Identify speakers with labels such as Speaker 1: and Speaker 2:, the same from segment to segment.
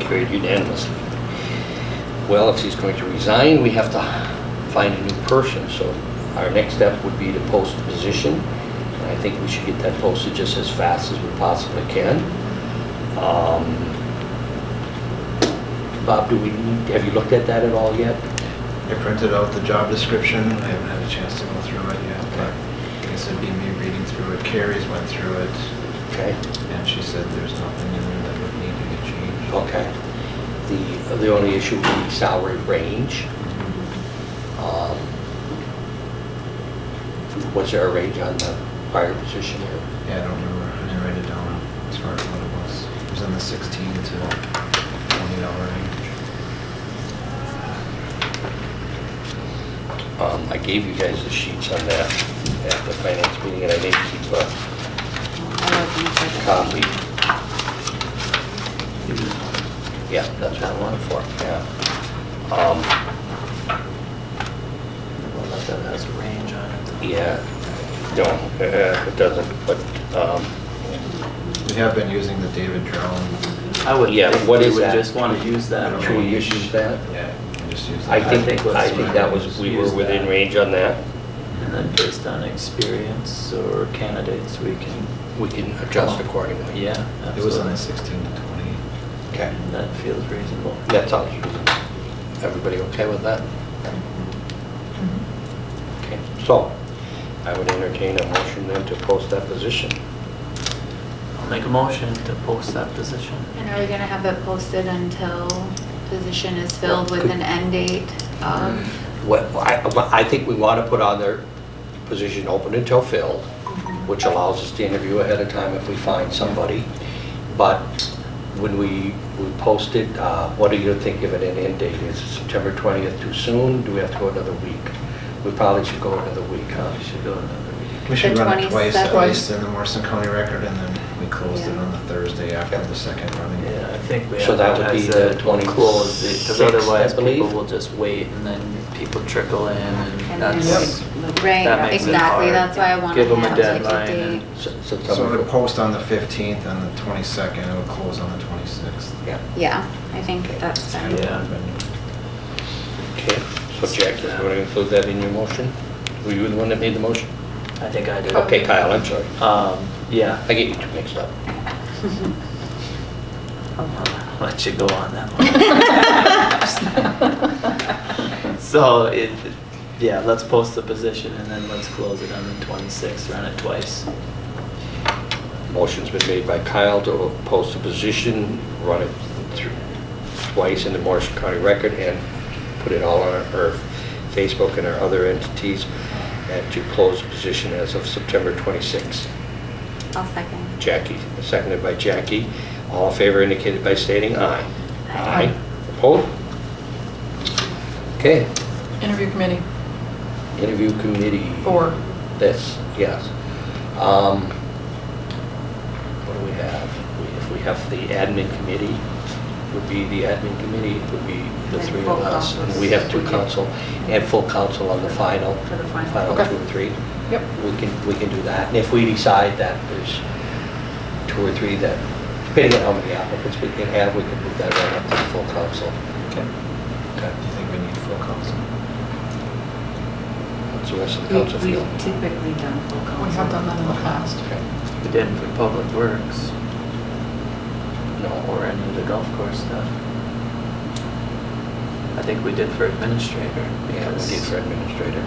Speaker 1: carried unanimously. Well, if she's going to resign, we have to find a new person, so our next step would be to post the position. And I think we should get that posted just as fast as we possibly can. Um, Bob, do we need, have you looked at that at all yet?
Speaker 2: I printed out the job description, I haven't had a chance to go through it yet, but I guess it'd be me reading through it, Carrie's went through it,
Speaker 1: Okay.
Speaker 2: and she said there's nothing in there that would need to be changed.
Speaker 1: Okay. The, the only issue would be salary range.
Speaker 2: Mm-hmm.
Speaker 1: Um, Was there a range on the prior position here?
Speaker 2: Yeah, I don't remember, I didn't write it down as far as what it was. It was in the sixteen to twenty dollar range.
Speaker 1: Um, I gave you guys the sheets on that at the finance meeting, and I didn't keep a copy. Yeah, that's what I wanted for, yeah. Um, well, that's- that's-
Speaker 3: range on it.
Speaker 1: Yeah, no, uh, it doesn't, but, um,
Speaker 2: We have been using the David Drown,
Speaker 3: I would,
Speaker 1: Yeah,
Speaker 3: think
Speaker 1: what
Speaker 3: we
Speaker 1: is
Speaker 3: would
Speaker 1: that?
Speaker 3: just want to use that.
Speaker 1: Should we
Speaker 3: range.
Speaker 1: use that?
Speaker 2: yeah, I just use
Speaker 1: I
Speaker 2: that.
Speaker 1: think,
Speaker 3: let's
Speaker 1: I think that was, we were
Speaker 3: use
Speaker 1: within
Speaker 3: that.
Speaker 1: range on that.
Speaker 3: And then based on experience or candidates, we can,
Speaker 1: We can
Speaker 3: adjust
Speaker 1: Oh. accordingly.
Speaker 3: yeah,
Speaker 2: It was in the
Speaker 3: absolutely.
Speaker 2: sixteen to twenty.
Speaker 1: Okay.
Speaker 3: And That feels reasonable.
Speaker 1: That sounds reasonable. Everybody okay with that? Okay. So, I would entertain a motion then to post that position.
Speaker 3: I'll make a motion to post that position.
Speaker 4: And are we gonna have it posted until position is filled with an end date of?
Speaker 1: What, I, well, I think we want to put on their position open until filled, which allows us to interview ahead of time if we find somebody. But when we, we post it, uh, what do you think of an end date? Is it September 20th too soon? Do we have to go another week? We probably should go another week, huh?
Speaker 3: We should go another week.
Speaker 2: We should
Speaker 4: The
Speaker 2: run it twice at
Speaker 4: 22nd.
Speaker 2: least in the Morrison County Record, and then we closed it
Speaker 4: Yeah.
Speaker 2: on the Thursday after the second running.
Speaker 3: Yeah, I think we
Speaker 1: So that would be
Speaker 3: advertise
Speaker 1: the
Speaker 3: that we'll close it,
Speaker 1: 26th,
Speaker 3: because
Speaker 1: I
Speaker 3: otherwise people
Speaker 1: believe.
Speaker 3: will just wait and then people trickle in and
Speaker 4: And
Speaker 3: that's.
Speaker 4: then-
Speaker 3: that
Speaker 4: Right,
Speaker 3: makes it
Speaker 4: exactly,
Speaker 3: hard.
Speaker 4: that's why I wanna
Speaker 3: Give them a
Speaker 4: have like a
Speaker 3: deadline and-
Speaker 4: date.
Speaker 1: So so
Speaker 2: So it
Speaker 1: September
Speaker 2: would post on the 15th, on the 22nd, it would close on the 26th.
Speaker 1: Yeah.
Speaker 4: Yeah, I think that's fine.
Speaker 3: Yeah.
Speaker 1: Okay, so Jack, you want to include that in your motion? Were you the one that made the motion?
Speaker 3: I think I did.
Speaker 1: Okay, Kyle, I'm sorry.
Speaker 3: Um, yeah.
Speaker 1: I get you two mixed up.
Speaker 3: I'll Let you go on that one. So it, yeah, let's post the position and then let's close it on the twenty-sixth, run it twice.
Speaker 1: Motion's been made by Kyle to post the position, run it through twice in the Morrison County Record, and put it all on our our Facebook and our other entities, and to close the position as of September 26.
Speaker 4: I'll second.
Speaker 1: Jackie, seconded by Jackie. All in favor indicated by stating aye.
Speaker 4: Aye.
Speaker 1: Opposed? Okay,
Speaker 5: Interview committee,
Speaker 1: interview committee.
Speaker 5: four.
Speaker 1: This, yes. Um, What do we have? We- If we have the admin committee, would be the admin committee, would be the
Speaker 5: And
Speaker 1: three of
Speaker 5: full
Speaker 1: us.
Speaker 5: council.
Speaker 1: And we have two council, and full council on the final.
Speaker 5: For the final. Okay.
Speaker 1: two or three.
Speaker 5: Yep.
Speaker 1: We can, we can do that. And if we decide that there's two or three that, depending on how many applicants we can have, we can move that right up to the full council.
Speaker 2: Okay.
Speaker 1: Okay.
Speaker 2: Do you think we need full council?
Speaker 1: What's the rest of the
Speaker 6: We-
Speaker 1: council feel?
Speaker 6: We've typically done full
Speaker 5: We
Speaker 6: council.
Speaker 5: have done that in the past.
Speaker 1: Okay.
Speaker 3: We did for Public Works
Speaker 1: No,
Speaker 3: or any of the golf course stuff. I think we did for administrator
Speaker 1: yeah, we
Speaker 3: because.
Speaker 1: did for administrator.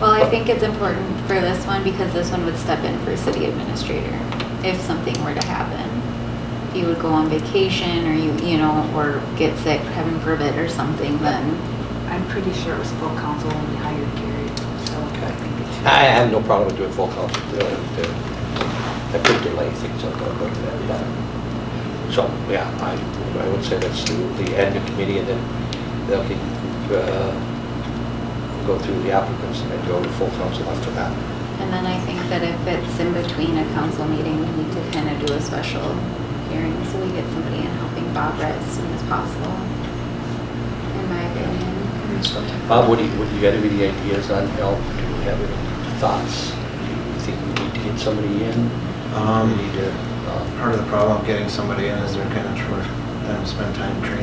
Speaker 4: Well, I think it's important for this one because this one would step in for city administrator if something were to happen. If you would go on vacation or you, you know, or get sick, heaven forbid, or something, then
Speaker 6: I'm pretty sure it was full council when we hired Gary, so I think it should.
Speaker 1: I have no problem with doing full council. I could delay things, I'm gonna look at that. So, yeah, I, I would say that's the the admin committee, and then they'll get, uh, go through the applicants, and then go to full council after that.
Speaker 4: and then I think that if it's in between a council meeting, we need to kind of do a special hearing so we get somebody in helping Bob right as soon as possible, in my opinion.
Speaker 1: Bob, what do you, what, you got any ideas on help? Do you have any thoughts? Do you think we need to get somebody in?
Speaker 2: Um,
Speaker 1: We need to, uh,
Speaker 2: Part of the problem of getting somebody in is they're kind of short, let them spend time training